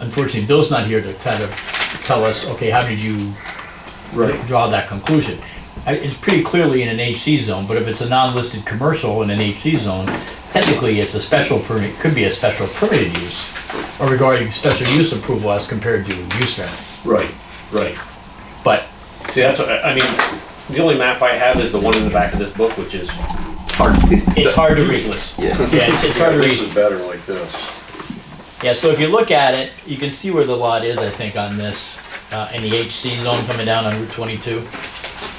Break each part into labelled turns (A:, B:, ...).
A: Unfortunately, Bill's not here to kind of tell us, okay, how did you
B: Right.
A: draw that conclusion? I- It's pretty clearly in an HC zone, but if it's a non-listed commercial in an HC zone, technically it's a special permit, could be a special permitted use or regarding special use approval as compared to use variance.
B: Right, right.
A: But
C: See, that's, what I I mean, the only map I have is the one in the back of this book, which is
B: Hard.
A: it's hard to read.
C: useless.
A: Yeah, it's, it's hard to read.
D: This is better like this.
A: Yeah, so if you look at it, you can see where the lot is, I think, on this, uh, in the HC zone coming down on Route 22.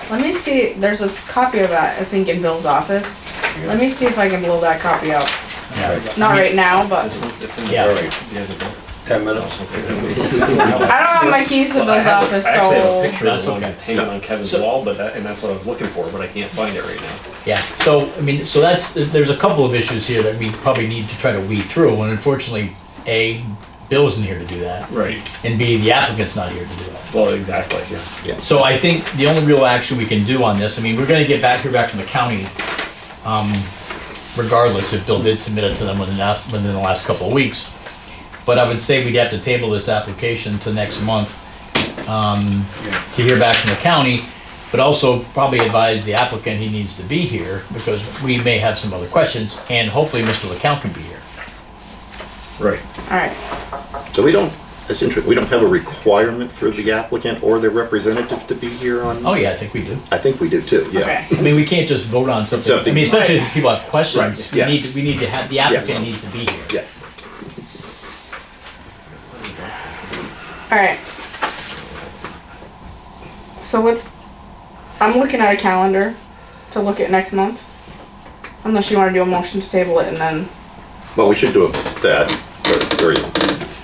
E: Let me see. There's a copy of that, I think, in Bill's office. Let me see if I can blow that copy out.
A: Yeah,
E: Not right now, but
A: yeah.
D: Ten minutes.
E: I don't have my keys to Bill's
C: Well, Oh, I have a-
E: office,
C: I actually have a
E: so.
C: picture of
A: That's
C: the one
A: okay.
C: hanging on Kevin's
A: So-
C: wall, but that, and that's what I was looking for, but I can't find it right now.
A: Yeah, so, I mean, so that's, there's a couple of issues here that we probably need to try to weed through, and unfortunately, A, Bill isn't here to do that,
C: Right.
A: and B, the applicant's not here to do that.
C: Well, exactly, yeah.
A: So I think the only real action we can do on this, I mean, we're gonna get back, here back from the county, um, regardless if Bill did submit it to them within the last, within the last couple of weeks. But I would say we'd have to table this application to next month, um, to hear back from the county, but also probably advise the applicant he needs to be here, because we may have some other questions, and hopefully Mr. LeCount can be here.
C: Right.
E: Alright,
B: So we don't, that's interesting, we don't have a requirement for the applicant or their representative to be here on?
A: Oh, yeah, I think we do.
B: I think we do too, yeah.
E: okay.
A: I mean, we can't just vote on something, I
B: Something.
A: mean, especially if people have questions,
B: Right,
A: we
B: yeah.
A: need, to- we need to have, the
B: Yes.
A: applicant needs to be here.
B: Yeah.
E: Alright. So what's, I'm looking at a calendar to look at next month. Unless you wanna do a motion to table it and then,
B: Well, we should do that, or, or,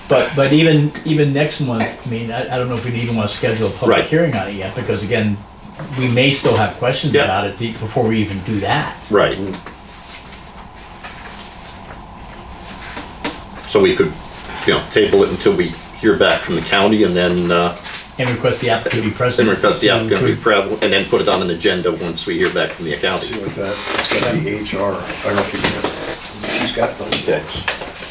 A: But, but even, even next month, I mean, I, I don't know if we'd even want to schedule a public
B: Right.
A: hearing on it yet, because again, we may still have questions
B: Yeah.
A: about it be- before we even do that.
B: right. So we could, you know, table it until we hear back from the county and then, uh,
A: And request the applicant to be present.
B: then request the
A: to-
B: applicant to be
A: to-
B: present, and then put it on an agenda once we hear back from the
D: See
B: county.
D: what that, it's gotta be HR, I recognize that. She's got those books.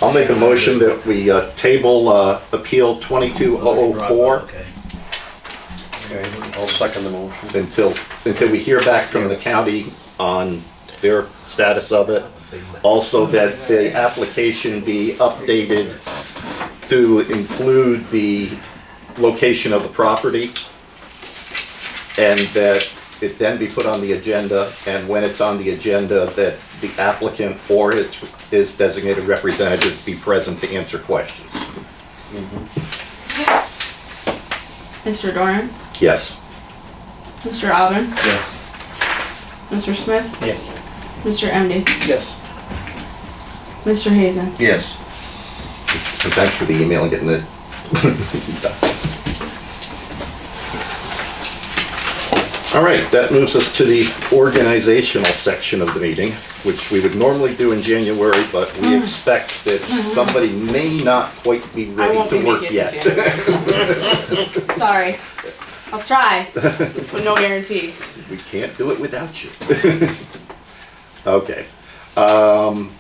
B: I'll make a motion that we uh, table uh, Appeal 22004
D: Okay, I'll second the motion.
B: until, until we hear back from the county on their status of it. Also that the application be updated to include the location of the property. And that it then be put on the agenda, and when it's on the agenda, that the applicant or its, his designated representative be present to answer questions.
E: Mr. Dorance,
B: Yes.
E: Mr. Alvin,
C: Yes.
E: Mr. Smith,
A: Yes.
E: Mr. MD,
D: Yes.
E: Mr. Hazen.
D: Yes.
B: And thanks for the email and getting it. All right, that moves us to the organizational section of the meeting, which we would normally do in January, but we expect that somebody may not quite be
E: Mm. Mm-hmm. I
B: ready
E: won't be
B: to work
E: making
B: yet.
E: it today. Sorry. I'll try, but no guarantees.
B: We can't do it without you. Okay. um,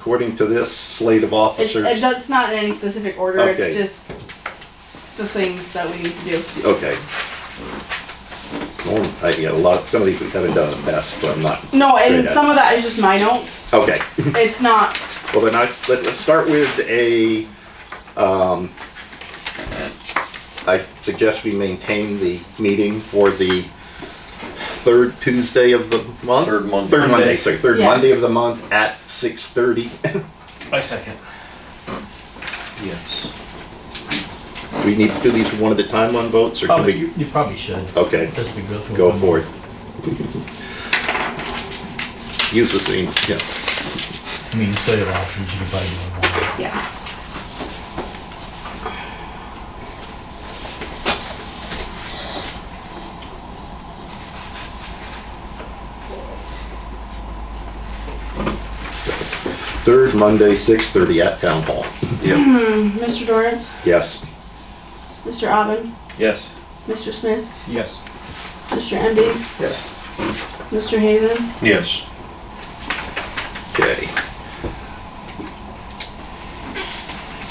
B: According to this slate of
E: Mm-hmm. It's,
B: officers.
E: it- that's not in any specific order,
B: Okay.
E: it's just the things that we need to do.
B: Okay. Well, I, yeah, a lot, some of these we haven't done in the past, but I'm not,
E: No, and
B: Great.
E: some of that is just my notes.
B: okay.
E: It's not,
B: Well, then I, let, let's start with a, um, I suggest we maintain the meeting for the third Tuesday of the month?
D: Third Monday.
B: Third Monday, sorry, third
E: Yes.
B: Monday of the month at six thirty.
C: I second.
D: Yes.
B: We need to do these one at a time on votes, or can
A: Probably,
B: we?
A: you you probably should.
B: Okay.
A: Just to go through.
B: Oh. Go
A: them.
B: for it. Use the same, yeah.
A: I mean, cellular options, you can buy them online.
E: yeah.
B: Third Monday, 6:30 at Town Hall.
D: Yep.
E: Mr. Dorrance,
B: Yes.
E: Mr. Alvin,
C: Yes.
E: Mr. Smith,
C: Yes.
E: Mr. MD,
D: Yes.
E: Mr. Hazen,
D: Yes.
B: Okay.